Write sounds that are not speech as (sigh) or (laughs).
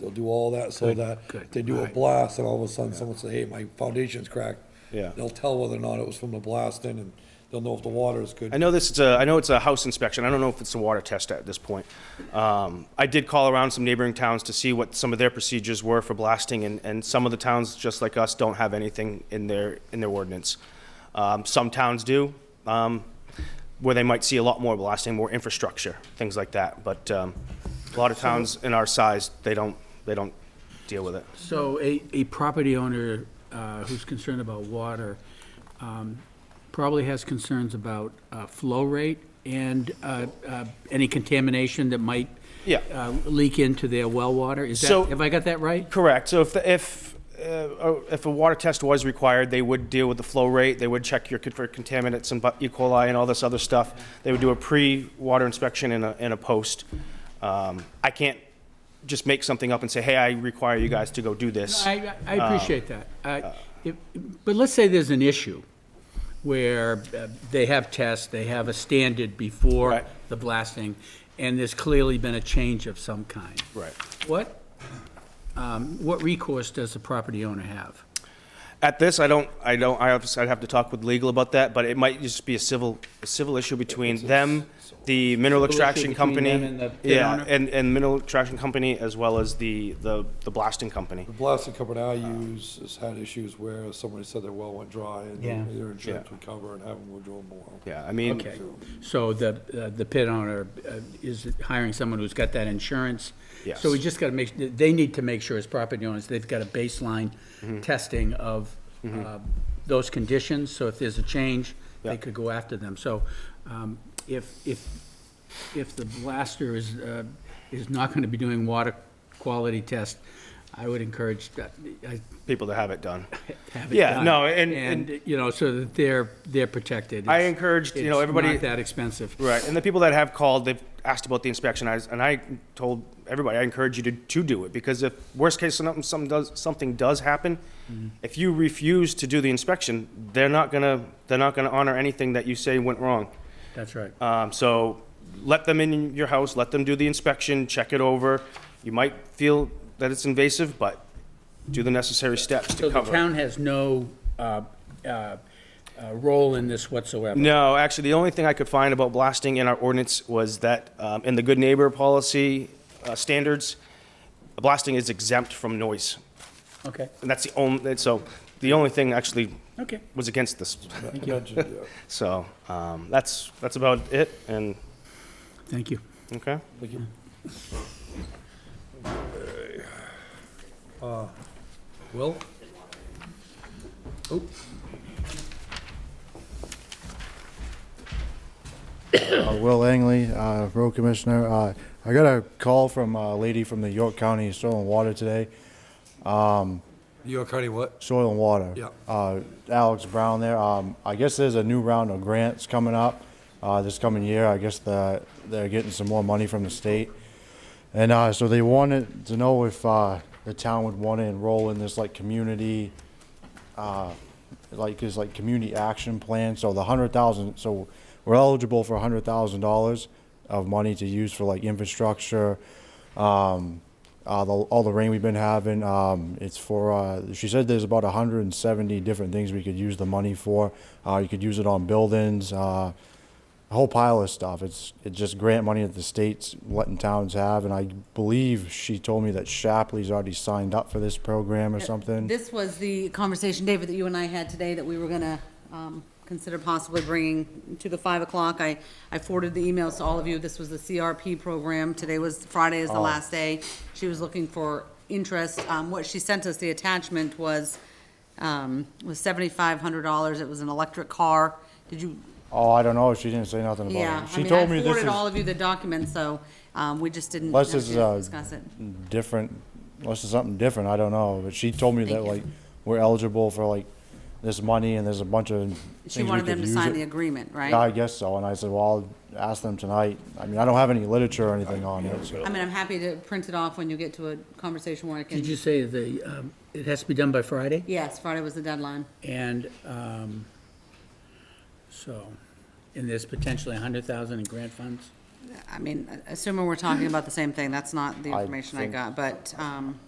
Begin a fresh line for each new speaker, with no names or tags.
They'll do all that so
Good,
that
good,
if they do a
alright.
blast and all of a sudden someone says, hey, my foundation's cracked.
Yeah.
They'll tell whether or not it was from the blasting and they'll know if the water is good.
I know this is a, I know it's a house inspection. I don't know if it's a water test at this point. Um, I did call around some neighboring towns to see what some of their procedures were for blasting, and, and some of the towns, just like us, don't have anything in their, in their ordinance. Um, some towns do, um, where they might see a lot more blasting, more infrastructure, things like that. But, um, a lot of towns in our size, they don't, they don't deal with it.
So a, a property owner uh, who's concerned about water um, probably has concerns about uh, flow rate and uh, uh, any contamination that might
Yeah.
uh, leak into their well water. Is
So-
that, have I got that right?
Correct. So if, the- if, uh, uh, if a water test was required, they would deal with the flow rate, they would check your con- for contaminants and bu- E. coli and all this other stuff. They would do a pre-water inspection and a, and a post. Um, I can't just make something up and say, hey, I require you guys to go do this.
I, I
Uh,
appreciate that. I- if- But let's say there's an issue where uh, they have tests, they have a standard before
Right.
the blasting, and there's clearly been a change of some kind.
Right.
What, um, what recourse does the property owner have?
At this, I don't, I don't, I obviously, I'd have to talk with legal about that, but it might just be a civil, a civil issue between them, the mineral
Civil issue
extraction
between
company.
them and the pit
Yeah,
owner?
and, and mineral extraction company as well as the, the, the blasting company.
The blasting company I use has had issues where somebody said their well went dry and
Yeah.
their insurance
Yeah.
would cover and have them withdraw the well.
Yeah, I mean.
Okay, so the, uh, the pit owner uh, is hiring someone who's got that insurance.
Yes.
So we just gotta make, they need to make sure as property owners, they've got a baseline
Mm-hmm.
testing of uh, those conditions, so if there's a change,
Yeah.
they could go after them. So um, if, if, if the blaster is, uh, is not gonna be doing water quality test, I would encourage, that- I
people to have it done.
(laughs) have it
Yeah,
done.
no, and- and-
you know, so that they're, they're protected.
I
It's-
encouraged, you know,
it's
everybody-
not that expensive.
Right, and the people that have called, they've asked about the inspection, I, and I told everybody, I encourage you to, to do it, because if, worst case, something, something does, something does happen,
Mm-hmm.
if you refuse to do the inspection, they're not gonna, they're not gonna honor anything that you say went wrong.
That's right.
Um, so let them in your house, let them do the inspection, check it over. You might feel that it's invasive, but do the necessary steps
So
to
the
cover it.
town has no uh, uh, uh, role in this whatsoever?
No, actually, the only thing I could find about blasting in our ordinance was that um, in the good neighbor policy uh, standards, blasting is exempt from noise.
Okay,
And that's the only, so the only thing actually
okay.
was against this.
Mentioned,
(laughs)
yeah.
So um, that's, that's about it. And,
Thank you.
okay.
Thank you. Uh, Will? Oh.
Uh, Will Angley, uh, Road Commissioner. Uh, I got a call from a lady from the York County Soil and Water today.
New York County what?
Soil and Water.
Yeah.
Uh, Alex Brown there. Um, I guess there's a new round of grants coming up uh, this coming year. I guess the, they're getting some more money from the state. And uh, so they wanted to know if uh, the town would want to enroll in this like community, uh, like this like community action plan. So the hundred thousand, so we're eligible for a hundred thousand dollars of money to use for like infrastructure, um, uh, the, all the rain we've been having. Um, it's for uh, she said there's about hundred and seventy different things we could use the money for. Uh, you could use it on buildings. Uh, a whole pile of stuff. It's it's just grant money that the state's letting towns have, and I believe she told me that Shapley's already signed up for this program or something.
This was the conversation, David, that you and I had today, that we were gonna, um, consider possibly bringing to the five o'clock. I, I forwarded the emails to all of you. This was the CRP program. Today was, Friday is the
Oh.
last day. She was looking for interest. Um, what she sent us, the attachment was, um, was seventy-five hundred dollars. It was an electric car. Did you,
oh, I don't know. She didn't say nothing about
yeah,
it. She
I mean, I
told me this
forwarded
is
all of you the document, so, um, we just didn't have
Unless
to
this is, uh,
discuss it.
different. Unless it's something different, I don't know. But she told me
Thank
that
you.
like we're eligible for like this money, and there's a bunch of
She
things we
wanted them
could
to
use
sign
it.
the agreement, right?
Yeah, I guess so. And I said, well, I'll ask them tonight. I mean, I don't have any literature or anything on it. so-
I mean, I'm happy to print it off when you get to a conversation where I
Did
can,
you say the, um, it has to be done by Friday?
yes, Friday was the deadline.
And um, so, and there's potentially 100,000 in grant funds?
I mean, assuming we're talking about the same thing, that's not the
I
information I
think-
got, but, um.